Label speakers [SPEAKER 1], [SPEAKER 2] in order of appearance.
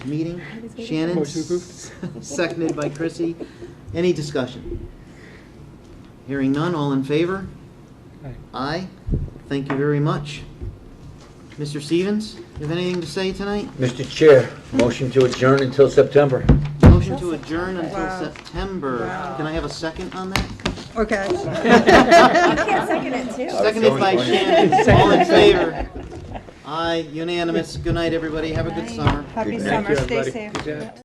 [SPEAKER 1] meeting. Shannon,
[SPEAKER 2] Motion approved.
[SPEAKER 1] seconded by Chrissy. Any discussion? Hearing none, all in favor?
[SPEAKER 2] Aye.
[SPEAKER 1] Aye. Thank you very much. Mr. Stevens, you have anything to say tonight?
[SPEAKER 3] Mr. Chair, motion to adjourn until September.
[SPEAKER 1] Motion to adjourn until
[SPEAKER 4] Wow.
[SPEAKER 1] September. Can I have a second on that?
[SPEAKER 4] Okay.
[SPEAKER 5] can't second it, too.
[SPEAKER 1] Seconded by
[SPEAKER 3] Going.
[SPEAKER 1] Shannon. All in favor? Aye, unanimous. Good night, everybody. Have a good summer.
[SPEAKER 4] Happy
[SPEAKER 3] Thank
[SPEAKER 4] summer,
[SPEAKER 3] you,
[SPEAKER 4] stay
[SPEAKER 3] everybody.
[SPEAKER 4] safe.
[SPEAKER 2] Good job.